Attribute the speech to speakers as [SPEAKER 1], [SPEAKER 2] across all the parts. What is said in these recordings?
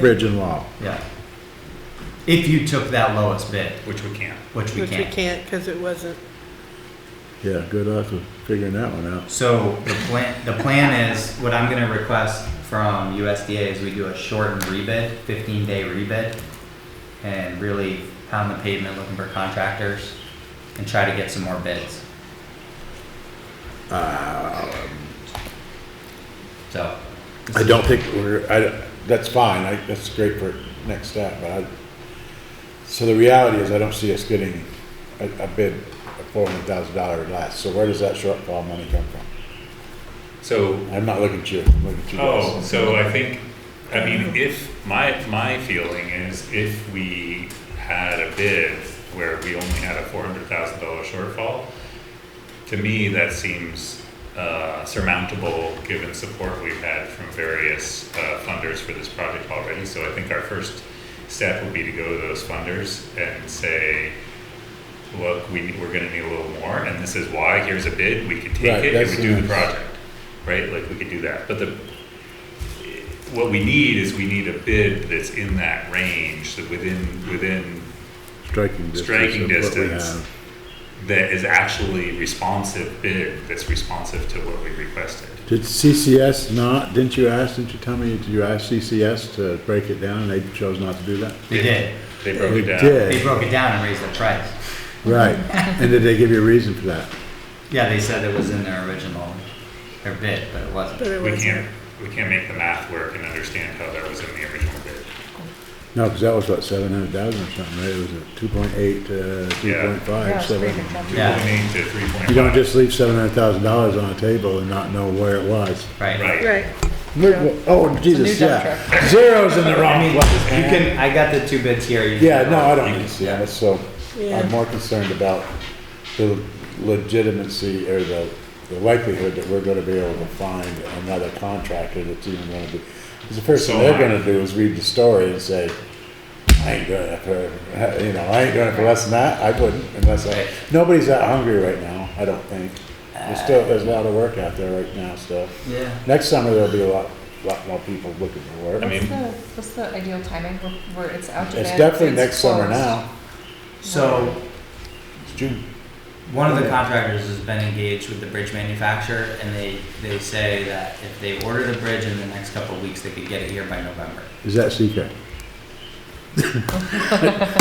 [SPEAKER 1] Bridge and wall.
[SPEAKER 2] Yeah. If you took that lowest bid,
[SPEAKER 3] which we can't.
[SPEAKER 2] which we
[SPEAKER 4] Which we
[SPEAKER 2] can't.
[SPEAKER 4] can't, because it wasn't,
[SPEAKER 1] Yeah, good luck with figuring that one out.
[SPEAKER 2] So the plan, the plan is, what I'm gonna request from USDA is we do a shortened rebid, fifteen day rebid. And really pound the pavement looking for contractors and try to get some more bids. So,
[SPEAKER 1] Uh, I don't think we're, I, that's fine, I, that's great for next step, but I, so the reality is I don't see us getting a, a bid of four hundred thousand dollars less, so where does that shortfall money come from?
[SPEAKER 3] So,
[SPEAKER 1] I'm not looking at you, I'm looking at you
[SPEAKER 3] oh,
[SPEAKER 1] guys.
[SPEAKER 3] so I think, I mean, if, my, my feeling is if we had a bid where we only had a four hundred thousand dollar shortfall, to me, that seems uh, surmountable, given support we've had from various uh, funders for this project already. So I think our first step would be to go to those funders and say, look, we, we're gonna need a little more, and this is why, here's a bid, we could
[SPEAKER 1] Right,
[SPEAKER 3] take it, and
[SPEAKER 1] that's
[SPEAKER 3] we do the
[SPEAKER 1] nice.
[SPEAKER 3] project, right? Like, we could do that, but the, what we need is we need a bid that's in that range, that within, within
[SPEAKER 1] Striking distance.
[SPEAKER 3] Striking
[SPEAKER 1] of what we
[SPEAKER 3] distance.
[SPEAKER 1] have.
[SPEAKER 3] that is actually responsive bid that's responsive to what we requested.
[SPEAKER 1] Did CCS not, didn't you ask, didn't you tell me, did you ask CCS to break it down and they chose not to do that?
[SPEAKER 2] they did,
[SPEAKER 3] They broke it
[SPEAKER 1] They
[SPEAKER 3] down.
[SPEAKER 1] did.
[SPEAKER 2] they broke it down and raised the price.
[SPEAKER 1] Right, and did they give you a reason for that?
[SPEAKER 2] Yeah, they said it was in their original, their bid, but it
[SPEAKER 4] but
[SPEAKER 2] wasn't.
[SPEAKER 4] it
[SPEAKER 3] We
[SPEAKER 4] wasn't.
[SPEAKER 3] can't, we can't make the math work and understand how that was in the original bid.
[SPEAKER 1] No, because that was what, seven hundred thousand or something, right? It was a two point eight to three
[SPEAKER 3] Yeah.
[SPEAKER 1] point five, seven.
[SPEAKER 2] Yeah.
[SPEAKER 3] 2.8 to three point five.
[SPEAKER 1] You don't just leave seven hundred thousand dollars on a table and not know where it was.
[SPEAKER 2] Right.
[SPEAKER 3] Right.
[SPEAKER 4] Right,
[SPEAKER 1] Oh, Jesus,
[SPEAKER 4] dump
[SPEAKER 1] yeah. Zero's in the
[SPEAKER 2] I mean,
[SPEAKER 1] wrong
[SPEAKER 2] you
[SPEAKER 1] place. man.
[SPEAKER 2] can, I got the two bids here. you can-
[SPEAKER 1] Yeah, no, I don't need to see that, so
[SPEAKER 4] Yeah.
[SPEAKER 1] I'm more concerned about the legitimacy or the, the likelihood that we're gonna be able to find another contractor that's even gonna do. Because the first thing
[SPEAKER 3] So
[SPEAKER 1] they're
[SPEAKER 3] am I.
[SPEAKER 1] gonna do is read the story and say, I ain't gonna, for, you know, I ain't gonna for less than that, I wouldn't unless I,
[SPEAKER 2] Right.
[SPEAKER 1] nobody's that hungry right now, I don't think. There's still, there's a lot of work out there right now, so.
[SPEAKER 2] Yeah.
[SPEAKER 1] Next summer, there'll be a lot, lot more people looking for work.
[SPEAKER 3] I mean-
[SPEAKER 5] What's the, what's the ideal timing where- where it's out to bid?
[SPEAKER 1] It's definitely
[SPEAKER 5] it's
[SPEAKER 1] next summer
[SPEAKER 5] closed?
[SPEAKER 1] now,
[SPEAKER 2] So
[SPEAKER 1] it's June.
[SPEAKER 2] One of the contractors has been engaged with the bridge manufacturer, and they, they say that if they order the bridge in the next couple of weeks, they could get it here by November.
[SPEAKER 1] Is that secret?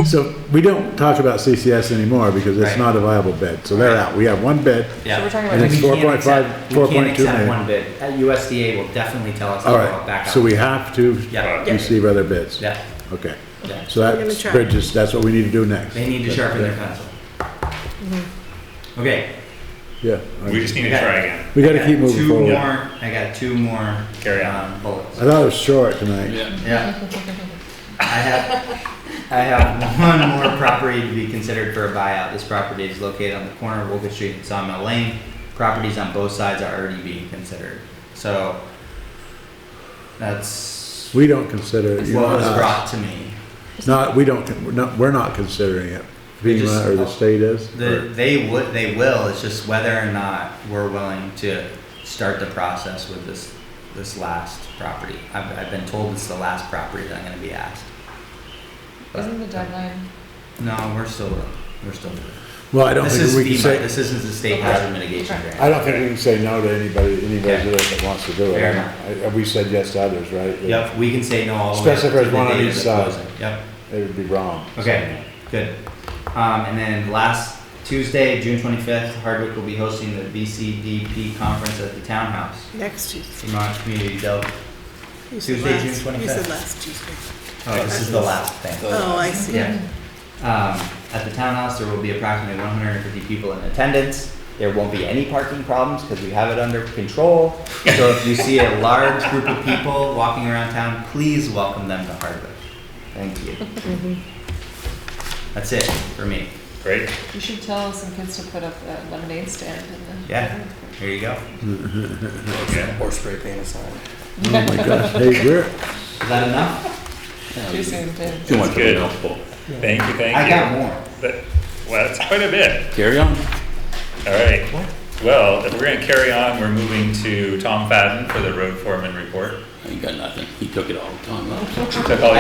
[SPEAKER 1] So we don't talk about CCS anymore because it's
[SPEAKER 2] Right.
[SPEAKER 1] not a viable bid, so they're
[SPEAKER 2] Right.
[SPEAKER 1] out. We have one bid.
[SPEAKER 2] Yeah.
[SPEAKER 5] we're talking about
[SPEAKER 1] And it's
[SPEAKER 2] We can't
[SPEAKER 1] 4.5
[SPEAKER 2] accept-
[SPEAKER 1] 4.2
[SPEAKER 2] We can't accept
[SPEAKER 1] million.
[SPEAKER 2] one bid. Uh, USDA will definitely tell us to
[SPEAKER 1] All
[SPEAKER 2] go back
[SPEAKER 1] right,
[SPEAKER 2] out.
[SPEAKER 1] so we have to
[SPEAKER 2] Yeah,
[SPEAKER 4] Yeah.
[SPEAKER 1] receive other bids.
[SPEAKER 2] yeah,
[SPEAKER 1] Okay,
[SPEAKER 2] yeah.
[SPEAKER 1] so
[SPEAKER 4] We're gonna
[SPEAKER 1] that's
[SPEAKER 4] try.
[SPEAKER 1] bridges, that's what we need to do next.
[SPEAKER 2] They need to sharpen their pencil.
[SPEAKER 5] Mm-hmm.
[SPEAKER 2] Okay.
[SPEAKER 1] Yeah. all
[SPEAKER 3] We
[SPEAKER 1] right.
[SPEAKER 3] just need to
[SPEAKER 2] Okay.
[SPEAKER 3] try again.
[SPEAKER 1] We
[SPEAKER 2] I
[SPEAKER 1] gotta
[SPEAKER 2] got
[SPEAKER 1] keep moving
[SPEAKER 2] two
[SPEAKER 1] forward. I
[SPEAKER 2] more- I got two more.
[SPEAKER 3] Carry on.
[SPEAKER 2] um, Bullets.
[SPEAKER 1] thought it was short tonight.
[SPEAKER 6] Yeah,
[SPEAKER 2] Yeah. I have, I have one more property to be considered for a buyout. This property is located on the corner of Wilkins Street and Sawmill Lane. Properties on both sides are already being considered, so that's
[SPEAKER 1] We don't consider it.
[SPEAKER 2] what
[SPEAKER 1] you know,
[SPEAKER 2] was
[SPEAKER 1] uh,
[SPEAKER 2] brought to me.
[SPEAKER 1] Not, we don't, con- we're not, we're not considering it.
[SPEAKER 2] We just-
[SPEAKER 1] FEMA or the state is?
[SPEAKER 2] The,
[SPEAKER 1] or-
[SPEAKER 2] they would, they will, it's just whether or not we're willing to start the process with this, this last property. I've, I've been told it's the last property that I'm gonna be asked.
[SPEAKER 5] Isn't the deadline,
[SPEAKER 2] No, we're still, we're still.
[SPEAKER 1] Well, I don't
[SPEAKER 2] This
[SPEAKER 1] think
[SPEAKER 2] is
[SPEAKER 1] we can
[SPEAKER 2] FEMA,
[SPEAKER 1] say.
[SPEAKER 2] this isn't the state hazard mitigation grant.
[SPEAKER 1] I don't think we can say no to anybody, any
[SPEAKER 2] Okay.
[SPEAKER 1] resident that wants to do it.
[SPEAKER 2] Fair
[SPEAKER 1] I- I- We said yes to others, right?
[SPEAKER 2] Yep, we can say no all the way. up
[SPEAKER 1] Especially if
[SPEAKER 2] to
[SPEAKER 1] there's one
[SPEAKER 2] the
[SPEAKER 1] on
[SPEAKER 2] date
[SPEAKER 1] each
[SPEAKER 2] of
[SPEAKER 1] side.
[SPEAKER 2] closing. Yep,
[SPEAKER 1] It would be wrong.
[SPEAKER 2] okay, good. Um, and then last Tuesday, June twenty-fifth, Hardwick will be hosting the VCDP conference at the townhouse,
[SPEAKER 4] next Tuesday.
[SPEAKER 2] Vermont Community Del. Oh,
[SPEAKER 4] You said
[SPEAKER 2] Tuesday,
[SPEAKER 4] last-
[SPEAKER 2] June
[SPEAKER 4] You
[SPEAKER 2] 25th.
[SPEAKER 4] said last Tuesday.
[SPEAKER 2] Oh, this is the last thing.
[SPEAKER 4] Oh, I see.
[SPEAKER 2] Yeah. Um, at the townhouse, there will be approximately one hundred and fifty people in attendance. There won't be any parking problems because we have it under control. So if you see a large group of people walking around town, please welcome them to Hardwick. Thank you.
[SPEAKER 3] Mm-hmm.
[SPEAKER 2] That's it for me.
[SPEAKER 3] Great.
[SPEAKER 5] you should tell some kids to put up a lemonade stand in the.
[SPEAKER 2] Yeah, here you go.
[SPEAKER 3] Okay.
[SPEAKER 6] or spray paint a sign.
[SPEAKER 1] Oh my gosh, hey, we're,
[SPEAKER 2] Is that enough?
[SPEAKER 5] Too soon to.
[SPEAKER 6] Too much of
[SPEAKER 3] Good.
[SPEAKER 6] a mouthful.
[SPEAKER 3] Thank you, thank you.
[SPEAKER 2] I got more.
[SPEAKER 3] That- Well, that's quite a bit.
[SPEAKER 6] Carry on.
[SPEAKER 3] All right. Well, if we're going to carry on, we're moving to Tom Fadden for the road foreman report.
[SPEAKER 6] I he got nothing. He took it all the time.
[SPEAKER 3] Took all